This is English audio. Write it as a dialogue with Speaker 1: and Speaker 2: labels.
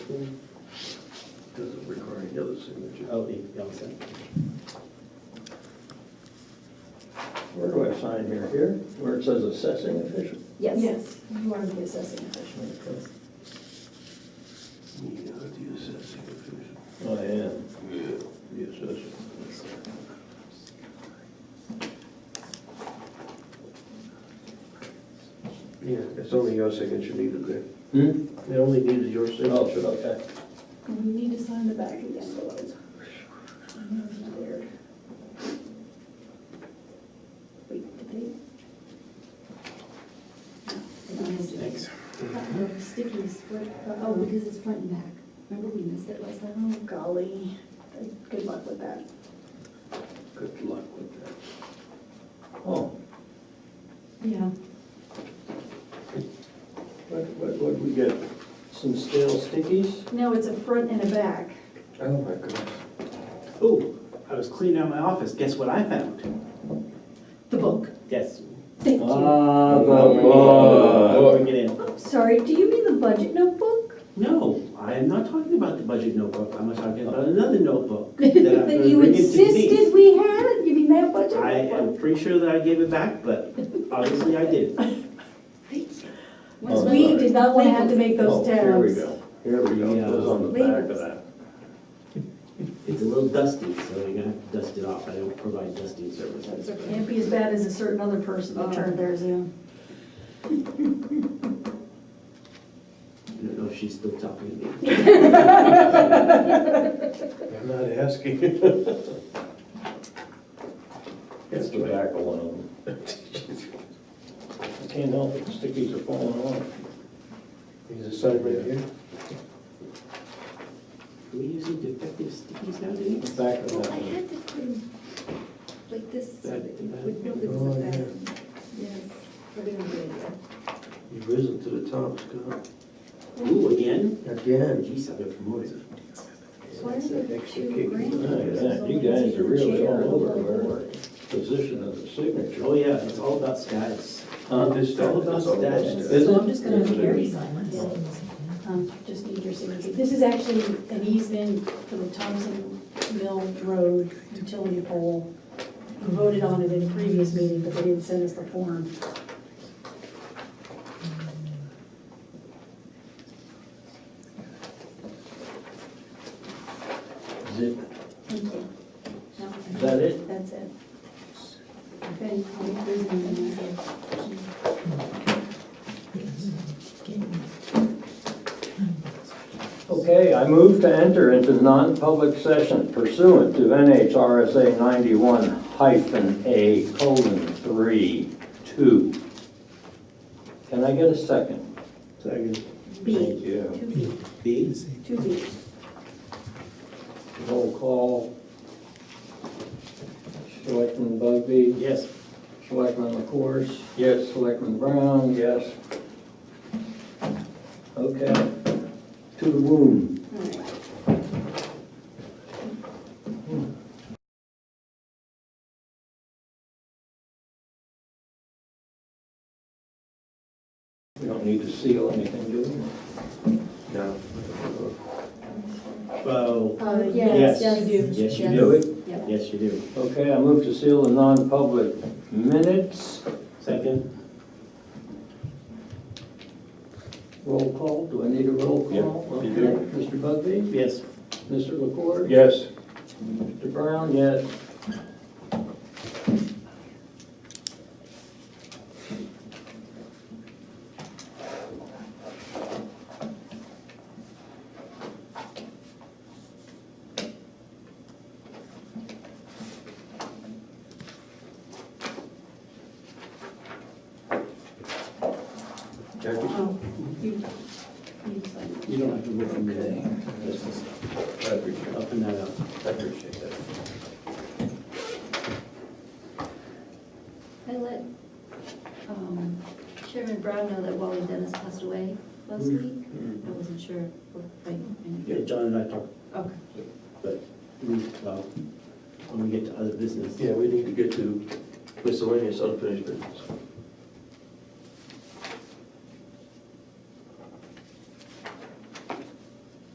Speaker 1: Doesn't require any other signature.
Speaker 2: Oh, the, the outside.
Speaker 1: Where do I sign here? Here, where it says assessing official?
Speaker 3: Yes, you are the assessing official.
Speaker 1: Yeah, the assessing official.
Speaker 2: Oh,
Speaker 1: I am. Yeah, the assessing. Yeah, it's only your signature needed there.
Speaker 2: Hmm?
Speaker 1: It Oh, only needed your signature.
Speaker 2: okay.
Speaker 3: And you need to sign the back of the envelope. I know it's not there. Wait, the date? No, I don't have
Speaker 2: Thanks.
Speaker 3: it. That little Sticky split, oh, because it's front and back. Remember we missed it last time? Oh, golly. Good luck with that.
Speaker 1: Good luck with that. Oh,
Speaker 3: Yeah.
Speaker 1: what, what, what we get? Some stale stickies?
Speaker 3: No, it's a front and a back.
Speaker 1: Oh, my goodness.
Speaker 2: Ooh, I was cleaning out my office, guess what I found?
Speaker 3: The book.
Speaker 2: Yes.
Speaker 3: Thank you.
Speaker 1: Oh,
Speaker 2: Ah, Bring it in.
Speaker 3: I'm sorry, do you mean the budget notebook?
Speaker 2: No, I am not talking about the budget notebook, I'm talking about another notebook. that I'm gonna
Speaker 3: That you
Speaker 2: bring into these.
Speaker 3: insisted we had it, you mean that budget
Speaker 2: I am
Speaker 3: notebook?
Speaker 2: pretty sure that I gave it back, but obviously I did.
Speaker 1: Oh,
Speaker 3: We did not want to have to make
Speaker 1: Oh,
Speaker 3: those tabs.
Speaker 1: Here we go, here we go,
Speaker 2: Yeah.
Speaker 1: goes on the back of that.
Speaker 2: It's a little dusty, so you're gonna have to dust it off, I don't provide dusting services.
Speaker 3: So it can't be as bad as a certain other person that turned theirs in.
Speaker 2: I don't know if she's still talking to me.
Speaker 1: I'm not asking. It's tobacco one of them. I can't help it, stickies are falling off. These are side right here?
Speaker 2: Are we using defective stickies nowadays?
Speaker 1: Back of
Speaker 4: Well, I had to put them like this, so that you would know it was
Speaker 1: Oh,
Speaker 4: a
Speaker 1: yeah.
Speaker 4: bad. Yes, but anyway,
Speaker 1: You've risen to the top, Scott.
Speaker 2: Ooh, again?
Speaker 1: Again.
Speaker 2: Geez, I've been promoted.
Speaker 4: why are there
Speaker 1: Extra
Speaker 4: two
Speaker 1: kick.
Speaker 4: grandkids?
Speaker 1: Oh, yeah,
Speaker 4: So
Speaker 1: you guys
Speaker 4: one's in
Speaker 1: are
Speaker 4: the
Speaker 1: really
Speaker 4: chair
Speaker 1: all over
Speaker 4: above
Speaker 1: there.
Speaker 4: board.
Speaker 1: Position of the signature.
Speaker 2: Oh, yeah, it's all about status.
Speaker 1: On Uh, this
Speaker 2: It's all about status.
Speaker 1: Is
Speaker 3: So
Speaker 1: it?
Speaker 3: I'm just gonna carry sign
Speaker 1: Oh.
Speaker 3: this. Um, Just need your signature. This is actually an easement for the Thompson Mill Road utility pole. We voted on it in a previous meeting, but they didn't send us the form.
Speaker 1: Is it?
Speaker 3: Thank you. No, I think
Speaker 1: Is that it?
Speaker 3: That's it. Okay, I'll leave this in there.
Speaker 5: Okay, I move to enter into non-public session pursuant to NHRSA 91 hyphen A colon 3, 2. Can I get a second?
Speaker 1: Second.
Speaker 3: B,
Speaker 5: Yeah.
Speaker 3: two B,
Speaker 2: B?
Speaker 3: two B.
Speaker 5: Roll call. Selectman Bugby,
Speaker 2: Yes.
Speaker 5: Selectman LaCourse,
Speaker 1: Yes.
Speaker 5: Selectman Brown, yes. Okay, to the womb.
Speaker 3: All right.
Speaker 5: We don't need to seal anything, do we?
Speaker 1: No.
Speaker 2: Oh,
Speaker 3: Uh,
Speaker 2: yes.
Speaker 3: yes, yes, you do.
Speaker 2: Yes, you
Speaker 3: Yes.
Speaker 2: do.
Speaker 3: Yep.
Speaker 2: Yes, you do.
Speaker 5: Okay, I move to seal the non-public minutes.
Speaker 2: Second?
Speaker 5: Roll call, do I need a roll call?
Speaker 2: Yeah, you
Speaker 5: Okay. Mr. Bugby?
Speaker 2: Yes.
Speaker 5: Mr. LaCour?
Speaker 1: Yes.
Speaker 5: Mr. Brown? Yes.
Speaker 1: Jackie?
Speaker 3: Oh, you, you decide.
Speaker 2: You don't have to look from there. Just
Speaker 1: I appreciate it.
Speaker 2: Open that up.
Speaker 1: I appreciate that.
Speaker 4: I let um, Chairman Brown know that Wally Dennis passed away last week. I wasn't sure. what- I- I-
Speaker 2: Yeah, John and I talked,
Speaker 4: Okay.
Speaker 2: but, mm, well, when we get to other business.
Speaker 1: Yeah, we need to get to miscellaneous unfinished business.